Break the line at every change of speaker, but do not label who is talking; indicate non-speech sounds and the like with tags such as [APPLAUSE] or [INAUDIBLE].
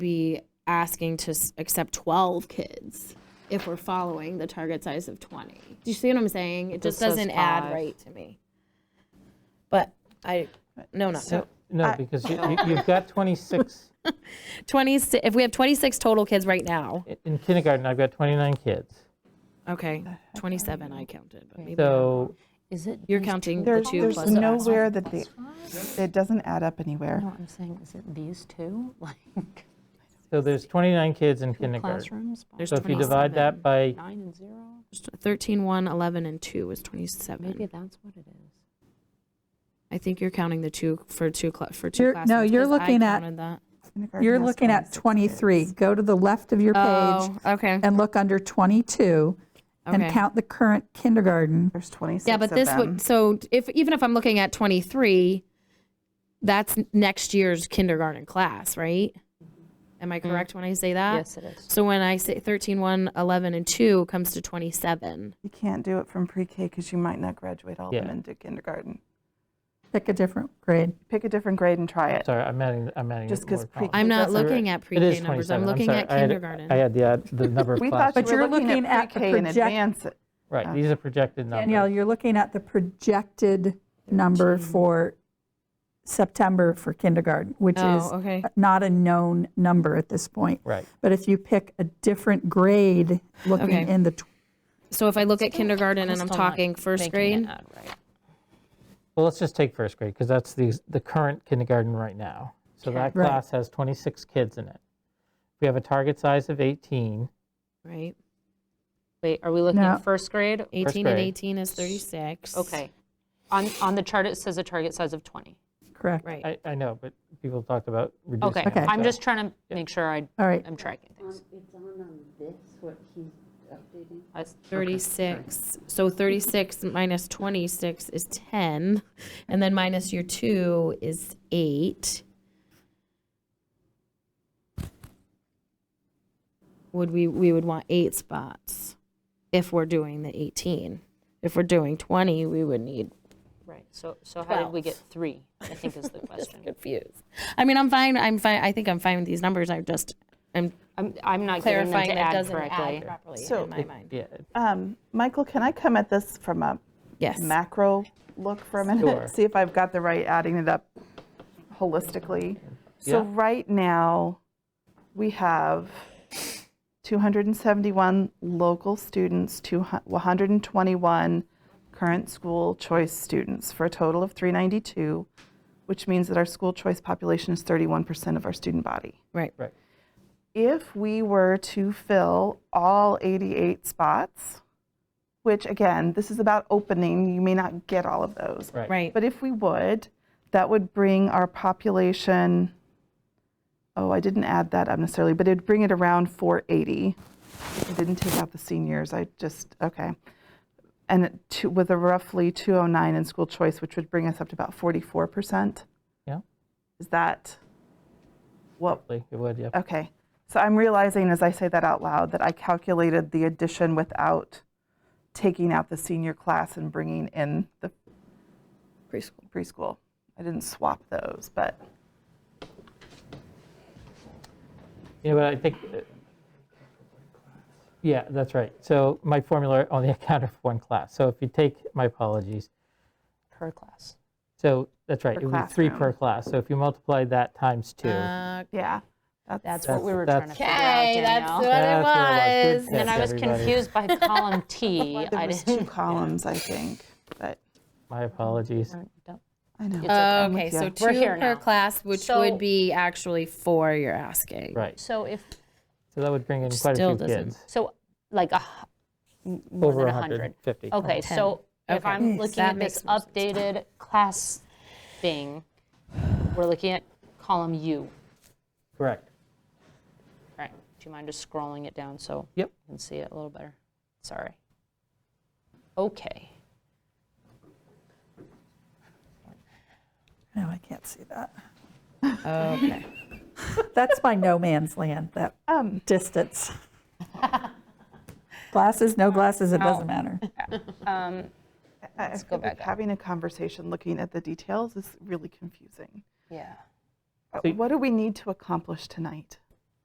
be asking to s- accept 12 kids if we're following the target size of 20. Do you see what I'm saying? It
This
just
says
doesn't add
five.
right to me. But I, no, not
No, No, because
[LAUGHS]
you, you- you've got 26,
20, if we have 26 total kids right now,
i- in kindergarten, I've got 29 kids.
okay, 27 I counted, but maybe
So,
Is it?
you're
these two
counting the
There's,
two
there's
plus the five.
nowhere that the, it doesn't add up anywhere.
No, I'm saying, is it these two, [LAUGHS] like
so there's 29 kids in [LAUGHS] kindergarten.
classrooms? by
There's
So if you divide that by,
Nine and zero?
13, 1, 11, and 2 is 27.
Maybe that's what it is.
I think you're counting the two for two cla- for 2
You're-
classes.
no, you're
'cause I
looking at-
counted that.
Kindergarten
You're
has
looking at 23. Go to the left of your page
Oh, okay.
and look under 22 and
Okay.
count the current kindergarten.
There's 26
Yeah, but
of
this
them.
would so if even if I'm looking at 23, that's next year's kindergarten class, right? Am I
Mm.
correct when I say that?
Yes, it is.
So when I say 13, 1, 11, and 2 comes to 27.
You can't do it from pre-K because you might not graduate all of them
Yeah.
into kindergarten.
Pick a different grade.
Pick a different grade and try it.
sorry, I'm adding, I'm adding.
Just 'cause
more
pre-
columns.
I'm not
that's a-
looking at
It
pre-K
is
numbers.
27.
I'm looking
sorry,
at
I had-
kindergarten.
I had the, odd- the number of
We thought you
But
classes.
were
you're
looking
looking
at
at the
pre-K in
project-
advance.
Right, these are projected numbers.
Danielle, you're looking at the projected number for September for kindergarten, which is
oh, okay.
not a known number at this point.
Right.
But if you pick a different grade,
Okay.
looking in the, tw-
So if I look at kindergarten and I'm
Still not
talking first
making it
grade,
add right.
Well, let's just take first grade, because that's the, the current kindergarten right now. So that
Right.
class has 26 kids in it. We have a target size of 18.
right?
Wait, are we looking
No.
at first grade?
18 and
grade.
18 is 36.
Okay. On, on the chart, it says a target size of 20.
correct?
Right.
I, I know, but people talked about reducing.
Okay,
it,
Okay.
I'm
so-
just trying to make sure I,
All right.
I'm tracking things.
It's on on this, what he's updating.
I s-
36. So 36 minus 26 is 10. And then minus your 2 is 8. Would we, we would want 8 spots if we're doing the 18. If we're doing 20, we would need
Right, so, so how did we get
Twelve.
three, I think is the question.
confused. I mean, I'm fine, I'm fine, I think I'm fine with these numbers, I'm just, I'm
I'm, I'm not getting them
clarifying
to
it
add
doesn't
correctly.
add properly
So-
in my mind.
Yeah,
Um, Michael, can I come at this from a
Yes.
macro look for a minute?
Sure.
[LAUGHS] See if I've got the right adding it up holistically. So
Yeah.
right now, we have 271 local students, 200 121 current school choice students for a total of 392, which means that our school choice population is 31% of our student body
Right,
right.
if we were to fill all 88 spots, which again, this is about opening, you may not get all of those.
Right.
right.
But if we would, that would bring our population, oh, I didn't add that up necessarily, but it'd bring it around 480. I didn't take out the seniors, I just, okay. And it- to- with a roughly 209 in school choice, which would bring us up to about 44%.
Yeah.
Is that what
Hopefully It would, yeah.
Okay. So I'm realizing as I say that out loud that I calculated the addition without taking out the senior class and bringing in the
Preschool.
preschool. I didn't swap those, but
Yeah, but I think, uh, yeah, that's right. So my formula only [LAUGHS] accounted for one class. So if you take, my apologies,
Per class.
so that's right,
Per
it would be three per
classroom.
class. So if you multiply that times two.
Uh,
yeah. That's,
That's what we were trying
that's-
to figure out, Danielle.
that's what it was. Good
And then
catch,
I was
everybody.
confused by column [LAUGHS] T.
there
I
was two
didn't.
columns, I think. But
My apologies.
don't-
I know.
It's okay.
Um, Okay,
with
so
ya.
two
We're here
per
now.
class, which
So-
would be actually four, you're asking.
Right.
So if,
So that would bring in quite
Still
a few
doesn't-
kids.
so like a, h- m- more
Over
than 100.
150.
Okay, so if
Okay.
I'm
Mm,
looking
that
at
makes
this
more sense.
updated class thing, we're looking at column U.
Correct.
All right, do you mind just scrolling it down so you
Yep.
can see it a little better? Sorry. Okay.
No, I can't see that.
Okay.
[LAUGHS] That's my no man's land, that
Um,
distance. Glasses, no glasses, it doesn't matter.
um,
I- I feel like having a conversation looking at the details is really confusing.
Yeah.
Uh, What do we need to accomplish tonight?